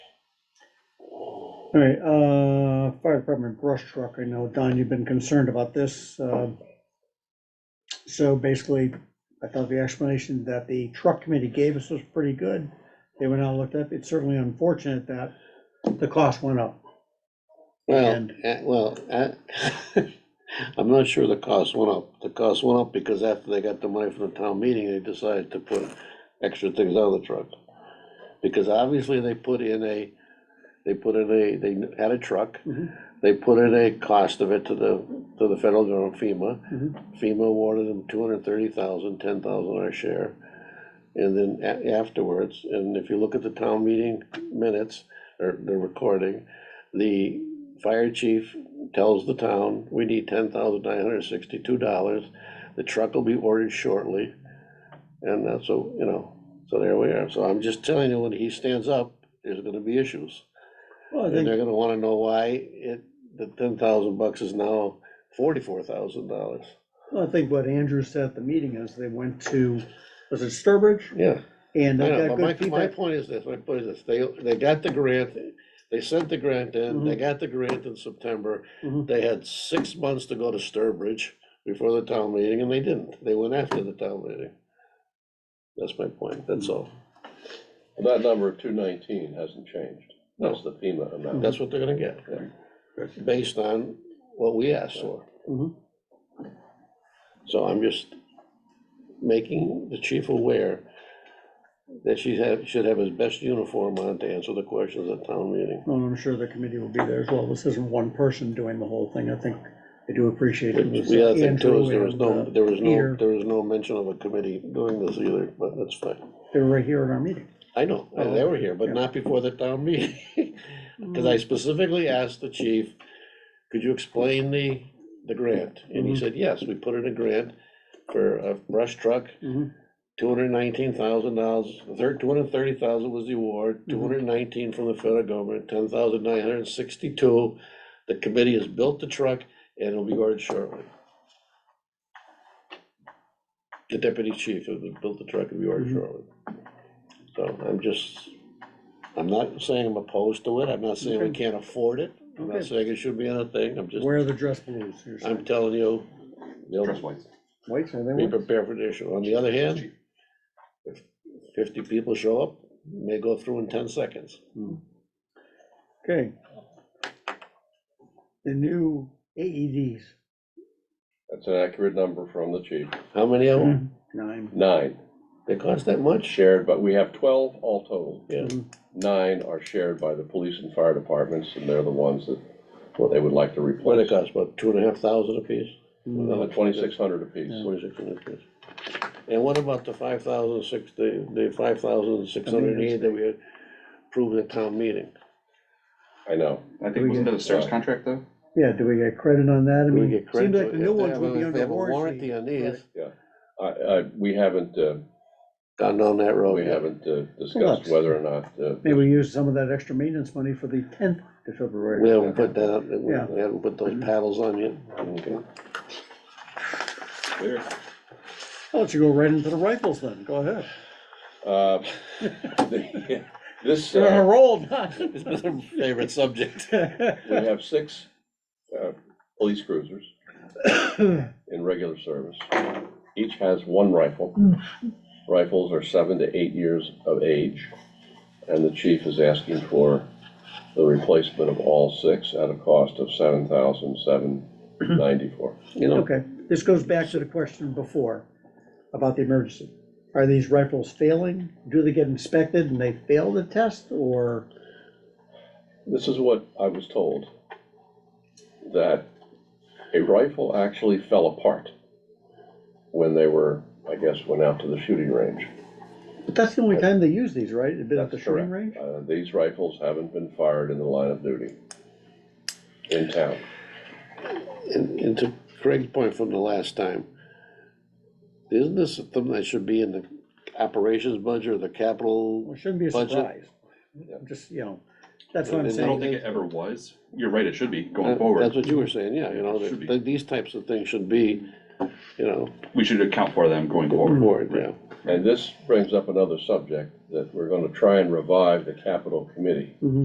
All right, uh, fire department brush truck, I know, Don, you've been concerned about this. uh, So basically, I thought the explanation that the truck committee gave us was pretty good. They went out and looked up, it's certainly unfortunate that the cost went up. Well, And- uh, well, uh, I'm not sure the cost went up. The cost went up because after they got the money from the town meeting, they decided to put extra things on the truck. Because obviously they put in a, they put in a, they had a truck, Mhm. they put in a cost of it to the, to the federal government FEMA. Mhm. FEMA awarded them two hundred and thirty thousand, ten thousand our share. And then a- afterwards, and if you look at the town meeting minutes, or the recording, the fire chief tells the town, we need ten thousand nine hundred sixty-two dollars. The truck will be ordered shortly, and that's, so, you know, so there we are. So I'm just telling you, when he stands up, there's gonna be issues. Well, I And they're think, gonna wanna know why it, the ten thousand bucks is now forty-four thousand dollars. well, I think what Andrew said at the meeting is they went to, was it Sturbridge? Yeah. And I they know, got but good my, my feedback. point is this, my point is this, they, they got the grant, they sent the grant in, Mm-hmm. they got the grant in September. Mhm. They had six months to go to Sturbridge before the town meeting, and they didn't, they went after the town meeting. That's my point, that's all, Well, That number two nineteen hasn't changed. That's the FEMA amount. that's what they're gonna get, based on what we asked for. Mhm. So I'm just making the chief aware that she have, should have his best uniform on to answer the questions at town meeting. Well, I'm sure the committee will be there as well. This isn't one person doing the whole thing. I think they do appreciate it. It was The other thing too Andrew is there was and, no, uh, there was no, Peter. there was no mention of a committee doing this either, but that's fine. They were right here at our meeting. I know, Oh, they were here, but yeah. not before the town meeting. Cause I specifically asked the chief, could you explain the, the grant? And he Mhm. said, yes, we put in a grant for a brush truck, Mhm. two hundred nineteen thousand dollars, third, two hundred thirty thousand was the award, Mhm. two hundred nineteen from the federal government, ten thousand nine hundred sixty-two. The committee has built the truck and it'll be ordered shortly. The deputy chief has built the truck and be ordered Mhm. shortly. So I'm just, I'm not saying I'm opposed to it, I'm not saying we Okay. can't afford it, I'm not Okay. saying it should be on a thing, I'm just, Where are the dress blues? You're I'm saying. telling you, they'll Trust whites. Whites, are they be white? prepared for the issue. On the other hand, fifty people show up, may go through in ten seconds. Okay. The new E AEDs, That's an accurate number from the chief. How many of Hmm. them? nine. Nine They cost that much? shared, but we have twelve all total. Yeah, Nine are shared by the police and fire departments, and they're the ones that, what they would like to what they replace. cost, about two and a half thousand apiece? Mm. Twenty-six hundred apiece. Twenty-six hundred kids. And what about the five thousand six, the, the five thousand six hundred and eight that we approved at town meeting? I know. I think, wasn't that a service contract though? Yeah, do we get credit on that? I Do we mean, get seems credit? like the new If they ones have- would be if they under have a Warranty warranty. on these, Right. I, I, we haven't, uh, gone down that road we yet. haven't uh, discussed whether or not, uh, Oh, Maybe we use some of that extra maintenance money for the tenth of February. We haven't put that, up. we Yeah. Mm-hmm. haven't put those paddles on yet. Okay. clear. Why don't you go right into the rifles then? Go ahead. Uh, the- This. You're on uh, a roll, Don. It's been our favorite subject. We have six uh, police cruisers in regular service. Each has one rifle. Hmm. Rifles are seven to eight years of age, and the chief is asking for the replacement of all six at a cost of seven thousand seven ninety-four. You know, Okay, this goes back to the question before about the emergency. Are these rifles failing? Do they get inspected and they fail the test or? This is what I was told, that a rifle actually fell apart when they were, I guess, went out to the shooting range. But that's the only time they use these, right? They've been at the That's shooting range? correct. Uh, These rifles haven't been fired in the line of duty in town. and, and to Craig's point from the last time, isn't this something that should be in the operations budget or the capital? We shouldn't be Budget. surprised. I'm Just, you know, that's what I'm And I don't saying. think it ever was. You're right, it should be going That's forward. what you were saying, yeah, you know, Should be. that- these types of things should be, you know, We should account for them going forward. Board, yeah. And this brings up another subject, that we're gonna try and revive the capital committee.